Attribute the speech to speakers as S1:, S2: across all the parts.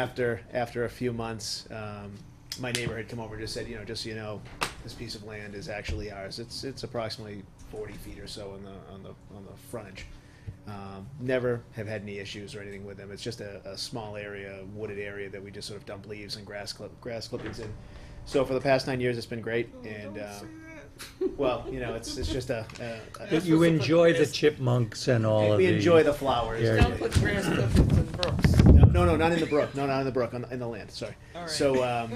S1: After, after a few months, um, my neighbor had come over and just said, you know, just so you know, this piece of land is actually ours. It's, it's approximately forty feet or so on the, on the, on the frontage. Um, never have had any issues or anything with them. It's just a, a small area, wooded area that we just sort of dump leaves and grass clip, grass clippings in. So for the past nine years, it's been great and, uh, well, you know, it's, it's just a, a- a.
S2: But you
S3: That's
S2: enjoy the
S3: what's-
S2: chipmunks and all of the.
S1: We enjoy the flowers.
S2: Yeah,
S3: Don't put grass clippings in brooks.
S1: No, no, not in the brook. No, not in the brook. On the, in the land. Sorry.
S3: All right.
S1: So, um,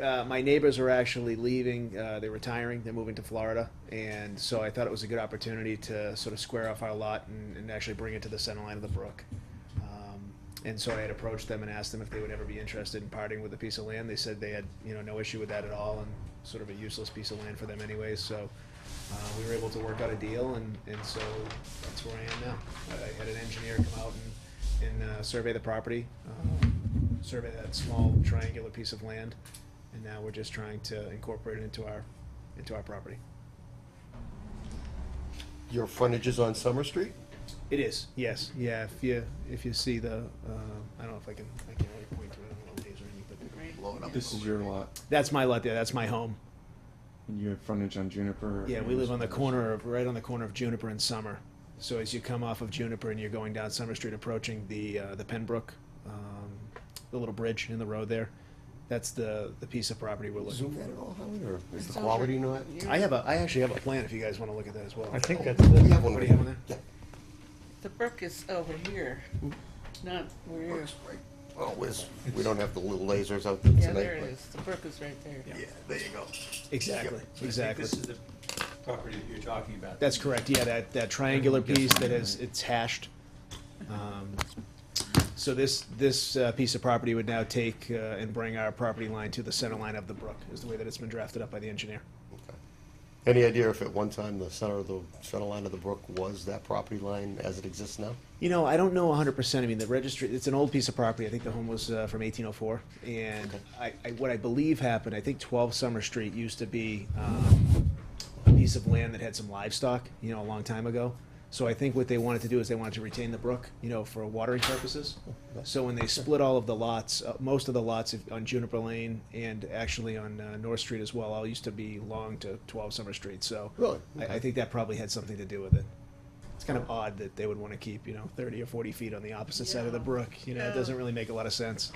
S1: uh, my neighbors are actually leaving. Uh, they're retiring. They're moving to Florida, and so I thought it was a good opportunity to sort of square off our lot and, and actually bring it to the center line of the brook. Um, and so I had approached them and asked them if they would ever be interested in parting with a piece of land. They said they had, you know, no issue with that at all, and sort of a useless piece of land for them anyways. So. Uh, we were able to work out a deal, and, and so that's where I am now. I I had an engineer come out and, and uh, survey the property, um, survey that small triangular piece of land, and now we're just trying to incorporate it into our, into our property.
S4: Your frontage is on Summer Street?
S1: It is, yes, yeah, if you, if you see the, uh, I don't know if I can, I can't really point to it, I don't know what it is or anything, but
S5: This is your lot,
S1: that's my lot there, that's my home.
S5: and you have frontage on Juniper.
S1: Yeah, we live on the corner of, right on the corner of Juniper and Summer. So as you come off of Juniper and you're going down Summer Street, approaching the, uh, the Penbrook, um, the little bridge in the road there, that's the, the piece of property we're looking
S4: Zoom that at all, Howard, or is the
S3: It's on
S4: quality
S3: your-
S4: not?
S1: for. I have a, I actually have a plan if you guys wanna look at that as well.
S2: I think that's
S4: We
S2: the,
S4: have one
S1: What
S4: over
S1: do you have
S4: here.
S1: on
S4: Yeah,
S3: The brook is over here, not where you're,
S4: looks right. Oh, whiz, we don't have the little lasers out there tonight.
S3: yeah, there it
S4: but-
S3: is, the brook is right there.
S4: Yeah, there you go.
S1: Exactly,
S6: So I think
S1: exactly.
S6: This is the property that you're talking about.
S1: That's correct, yeah, that, that triangular piece that is, it's hashed. Um, So this, this uh, piece of property would now take uh, and bring our property line to the center line of the brook, is the way that it's been drafted up by the engineer.
S4: Okay. Any idea if at one time the center of the, center line of the brook was that property line as it exists now?
S1: You know, I don't know 100%. I mean, the registry, it's an old piece of property. I think the home was uh, from 1804. And I, I, what I believe happened, I think 12 Summer Street used to be um, a piece of land that had some livestock, you know, a long time ago. So I think what they wanted to do is they wanted to retain the brook, you know, for watering purposes. So when they split all of the lots, uh, most of the lots of- on Juniper Lane and actually on uh, North Street as well, all used to be long to 12 Summer Street. So
S4: Really?
S1: I, I think that probably had something to do with it. It's kind of odd that they would want to keep, you know, 30 or 40 feet on the opposite side of the
S3: Yeah.
S1: brook. You know, it
S3: Yeah.
S1: doesn't really make a lot of sense.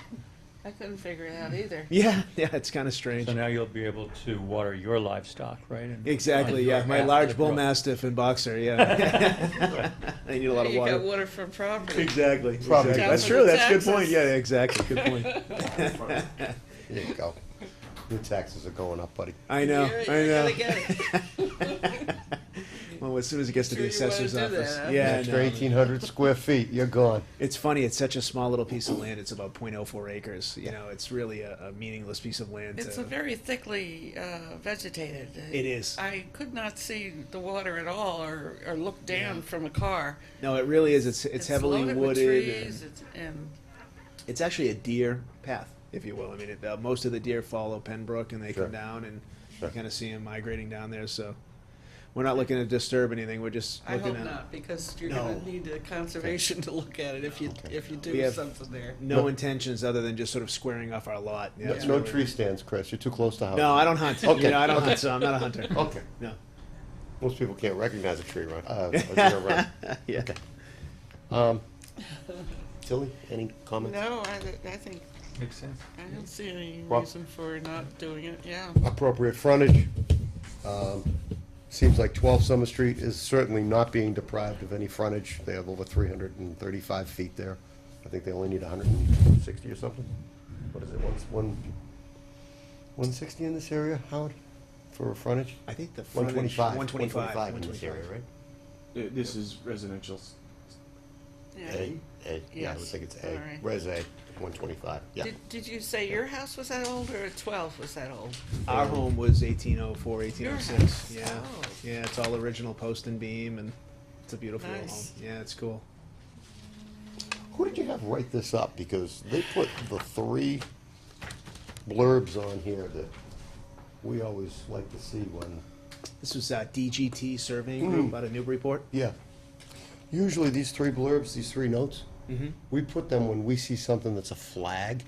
S3: I couldn't figure it out either.
S1: Yeah, yeah, it's kind of strange.
S7: So now you'll be able to water your livestock, right? And-
S1: Exactly, yeah. My large bull mastiff and boxer, yeah. They need a lot of
S3: You got
S1: water.
S3: water from property.
S1: Exactly.
S4: Property.
S1: exactly. That's
S3: Down
S1: true.
S3: with the
S1: That's a good point.
S3: taxes.
S1: Yeah, exactly. Good point.
S4: There you go. Your taxes are going up, buddy.
S1: I know.
S3: You're-
S1: I
S3: you're
S1: know.
S3: gonna get it.
S1: Well, as soon as it gets to
S3: Sure
S1: the
S3: you wanna
S1: assessor's
S3: do that,
S1: office.
S3: huh?
S1: Yeah, I
S4: After
S1: know.
S4: eighteen hundred square feet, you're gone.
S1: It's funny. It's such a small little piece of land. It's about 0.04 acres. You know, it's really a, a meaningless piece of land.
S3: It's
S1: to-
S3: a very thickly uh, vegetated.
S1: It is.
S3: I could not see the water at all or, or look down from a car.
S1: No, it really is. It's it's, heavily
S3: loaded with
S1: wooded.
S3: trees,
S1: and
S3: it's- And
S1: it's actually a deer path, if you will. I mean, it, uh, most of the deer follow Penbrook and they
S4: Sure.
S1: come down, and
S4: Sure.
S1: you kind of see them migrating down there. So we're not looking to disturb anything. We're just
S3: I
S1: looking
S3: hope
S1: at.
S3: not, because you're
S1: No.
S3: gonna need the conservation to look at it if you, if you
S1: We
S3: do
S1: have-
S3: something there.
S1: No intentions other than just sort of squaring off our lot. Yeah,
S4: No-
S1: it's
S4: No
S1: really-
S4: tree stands, Chris, you're too close to Howard.
S1: No, I don't hunt. Okay.
S4: Okay,
S1: You know, I don't hunt, so I'm not a hunter.
S4: Okay,
S1: No.
S4: most people can't recognize a tree run, uh, a deer run.
S1: yeah.
S4: Um, Tilly, any comments?
S3: No, I, th- I think,
S7: Makes sense.
S3: I don't see any
S4: Well-
S3: reason for not doing it, yeah.
S4: Appropriate frontage. Um, Seems like 12 Summer Street is certainly not being deprived of any frontage. They have over 335 feet there. I think they only need 160 or something. What is it, one, one- 160 in this area, Howard, for a frontage?
S1: I think the frontage-
S4: 125.
S1: 125.
S4: 125 in this area, right?
S5: Th- This is residential. s-
S3: Yeah.
S4: A, A, yeah, I would
S3: Yes.
S4: think it's
S3: All
S4: A.
S3: right.
S4: Res A, 125, yeah.
S3: Did, did you say your house was that old or twelve was that old?
S1: Our home was 1804,
S3: Your
S1: 1806.
S3: house.
S1: Yeah.
S3: Oh.
S1: Yeah, it's all original post and beam, and it's a beautiful little
S3: Nice.
S1: home. Yeah, it's cool.
S4: Who did you have write this up? Because they put the three blurbs on here that we always like to see when,
S1: This was uh,
S3: Mm.
S1: DGT Surveying Group out of Newburyport.
S4: yeah. Usually these three blurbs, these three notes,
S3: Mm-hmm.
S4: We put them when we see something that's a flag,